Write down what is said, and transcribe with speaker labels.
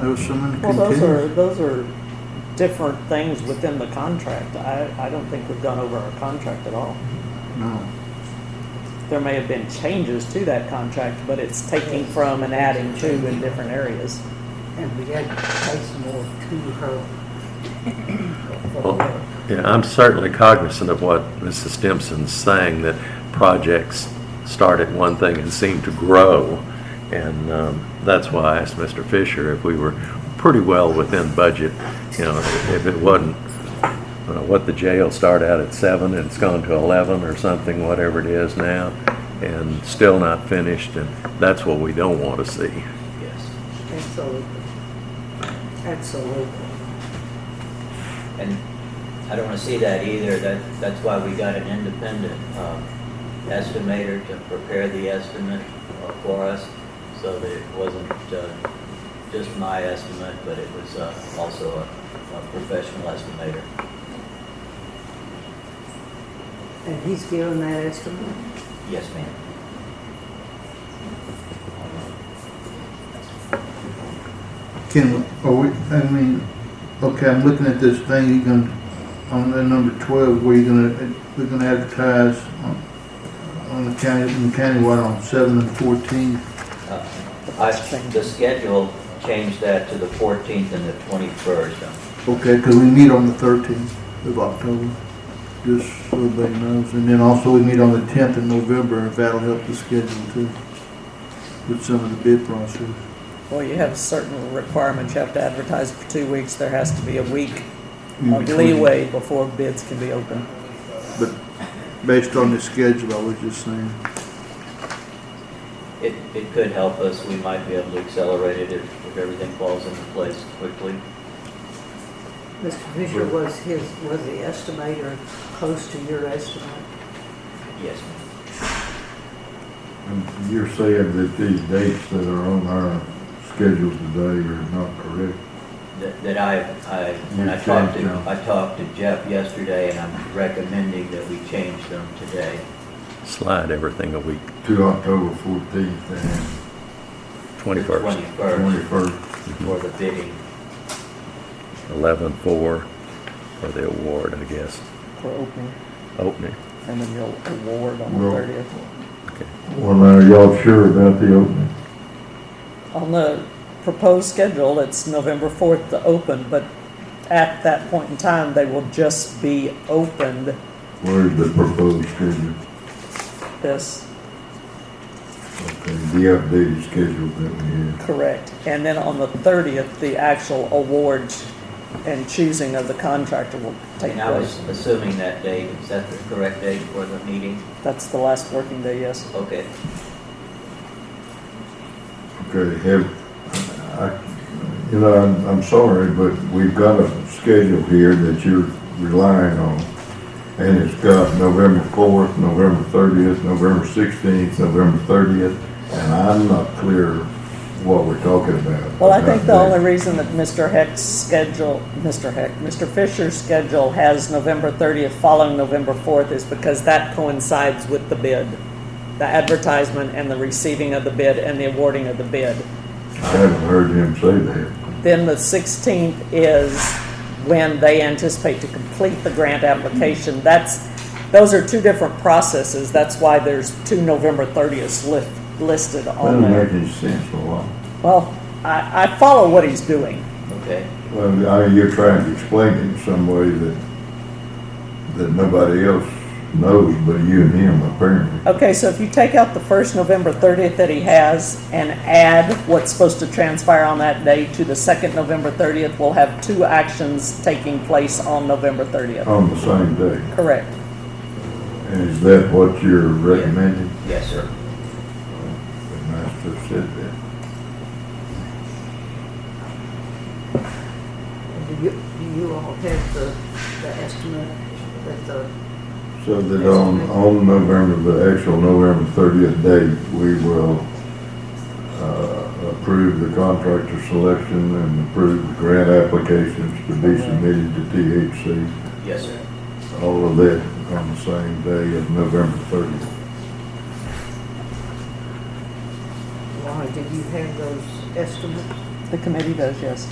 Speaker 1: There's someone
Speaker 2: Well, those are,
Speaker 1: continues.
Speaker 2: those are different things within the contract. I, I don't think we've gone over our contract at all.
Speaker 1: No.
Speaker 2: There may have been changes to that contract, but it's taking from and adding to in different areas.
Speaker 3: And we had to pay some more to her.
Speaker 4: Well, Yeah, I'm certainly cognizant of what Mrs. Stimson's saying, that projects start at one thing and seem to grow. And um, that's why I asked Mr. Fisher if we were pretty well within budget, you know, if- if it wasn't, you know, what the jail started out at seven and it's gone to 11 or something, whatever it is now, and still not finished, and that's what we don't want to see.
Speaker 5: Yes.
Speaker 3: Absolutely. Absolutely.
Speaker 5: And I don't want to see that either. That, that's why we got an independent um, estimator to prepare the estimate uh, for us, so that it wasn't uh, just my estimate, but it was uh, also a a professional estimator.
Speaker 3: And he's given that estimate?
Speaker 5: Yes, ma'am.
Speaker 1: Can, are we, I mean, okay, I'm looking at this thing, you can, on the number twelve, where you're gonna, we're gonna advertise on, on the county, in the countywide on seven and fourteen.
Speaker 5: Uh, I, the schedule changed that to the 14th and the 21st.
Speaker 1: Okay, because we meet on the thirteenth of October, just so everybody knows. And then also we meet on the tenth of November, if that'll help the schedule too, with some of the bid process.
Speaker 2: Well, you have certain requirements. You have to advertise for two weeks. There has to be a week
Speaker 1: in
Speaker 2: of
Speaker 1: between.
Speaker 2: leeway before bids can be open.
Speaker 1: But based on the schedule, I was just saying,
Speaker 5: It, it could help us. We might be able to accelerate it if, if everything falls into place quickly.
Speaker 3: Mr. Fisher, was his, was the estimator close to your estimate?
Speaker 5: Yes, ma'am.
Speaker 6: And You're saying that these dates that are on our schedule today are not correct?
Speaker 5: that, that I, I, when I
Speaker 6: You
Speaker 5: talked to,
Speaker 6: changed them.
Speaker 5: I talked to Jeff yesterday, and I'm recommending that we change them today.
Speaker 4: Slide everything a week,
Speaker 6: To October fourteenth and
Speaker 4: 21st,
Speaker 5: Twenty-first
Speaker 6: twenty-first.
Speaker 5: for the bidding.
Speaker 4: 11/4 for the award, I guess,
Speaker 2: for opening,
Speaker 4: opening.
Speaker 2: and then you'll award on the
Speaker 6: Well-
Speaker 2: thirtieth.
Speaker 4: Okay.
Speaker 6: Well, now, are y'all sure about the opening?
Speaker 2: On the proposed schedule, it's November fourth to open, but at that point in time, they will just be opened
Speaker 6: Where's the proposed schedule?
Speaker 2: this,
Speaker 6: Okay, the updated schedule that we have.
Speaker 2: correct? And then on the thirtieth, the actual awards and choosing of the contractor will take
Speaker 5: And I was
Speaker 2: place.
Speaker 5: assuming that date, is that the correct date for the meeting?
Speaker 2: That's the last working day, yes.
Speaker 5: Okay,
Speaker 6: Okay, have, I, you know, I'm, I'm sorry, but we've got a schedule here that you're relying on. And it's got November fourth, November thirtieth, November sixteenth, November thirtieth, and I'm not clear what we're talking about.
Speaker 2: Well, I think the
Speaker 6: about
Speaker 2: only
Speaker 6: that.
Speaker 2: reason that Mr. Heck's schedule, Mr. Heck, Mr. Fisher's schedule has November 30th following November 4th is because that coincides with the bid, the advertisement and the receiving of the bid and the awarding of the bid.
Speaker 6: I haven't heard him say that.
Speaker 2: Then the 16th is when they anticipate to complete the grant application. That's, those are two different processes. That's why there's two November 30ths lis- listed on
Speaker 6: Doesn't
Speaker 2: there.
Speaker 6: make any sense a lot.
Speaker 2: Well, I, I follow what he's doing.
Speaker 5: okay.
Speaker 6: Well, I mean, you're trying to explain it in some way that, that nobody else knows but you and him apparently.
Speaker 2: Okay, so if you take out the first November 30th that he has and add what's supposed to transpire on that day to the second November 30th, we'll have two actions taking place on November 30th.
Speaker 6: On the same day.
Speaker 2: Correct.
Speaker 6: And is that what you're recommending?
Speaker 5: Yes, sir.
Speaker 6: The master said that.
Speaker 3: And Do you, do you all have the, the estimate that the,
Speaker 6: So that on, on November, the actual November thirtieth date, we will, uh, approve the contractor selection and approve the grant applications to be submitted to THC.
Speaker 5: Yes, sir.
Speaker 6: All of that on the same day of November thirtieth.
Speaker 3: Laura, do you have those estimates?
Speaker 2: The committee does, yes.